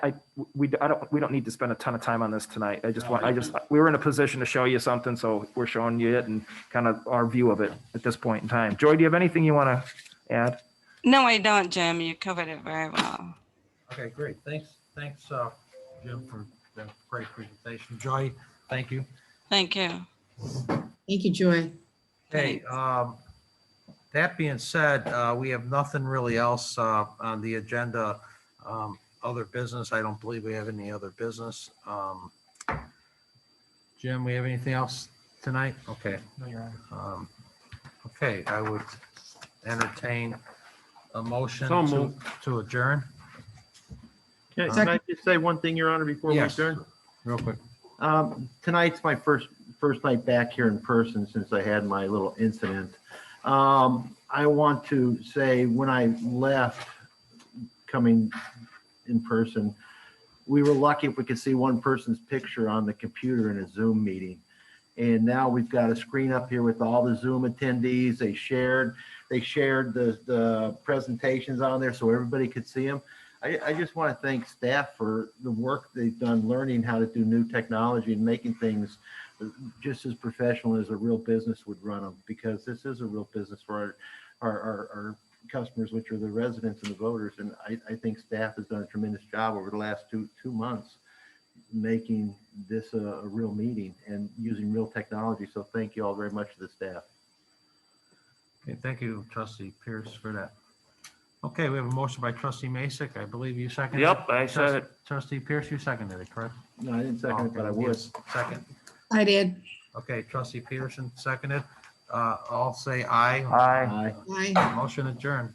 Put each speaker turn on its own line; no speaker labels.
I, we, I don't, we don't need to spend a ton of time on this tonight. I just want, I just, we were in a position to show you something, so we're showing you it and kind of our view of it at this point in time. Joy, do you have anything you want to add?
No, I don't, Jim. You covered it very well.
Okay, great. Thanks, thanks, uh, Jim, for the great presentation. Joy, thank you.
Thank you.
Thank you, Joy.
Okay, um, that being said, uh, we have nothing really else, uh, on the agenda. Um, other business, I don't believe we have any other business. Um, Jim, we have anything else tonight? Okay.
No, Your Honor.
Um, Okay, I would entertain a motion
So
to
moved.
to adjourn.
Can
Uh,
can I just say one thing, Your Honor, before we
Yes.
adjourn?
Real quick.
Um, Tonight's my first, first night back here in person since I had my little incident. Um, I want to say, when I left coming in person, we were lucky if we could see one person's picture on the computer in a Zoom meeting. And now we've got a screen up here with all the Zoom attendees. They shared, they shared the, the presentations on there so everybody could see them. I, I just want to thank staff for the work they've done, learning how to do new technology and making things uh, just as professional as a real business would run them, because this is a real business for our, our, our, our customers, which are the residents and the voters. And I, I think staff has done a tremendous job over the last two, two months, making this a, a real meeting and using real technology. So thank you all very much to the staff.
Okay, thank you, trustee Pierce, for that. Okay, we have a motion by trustee Masek. I believe you seconded. it.
Yep, I said it.
Trustee Pierce, you seconded it, correct?
No, I didn't second it, but I
Okay, you
would.
Second.
I did.
Okay, trustee Peterson seconded. Uh, all say aye.
Aye.
Aye.
Bye.
Motion adjourned.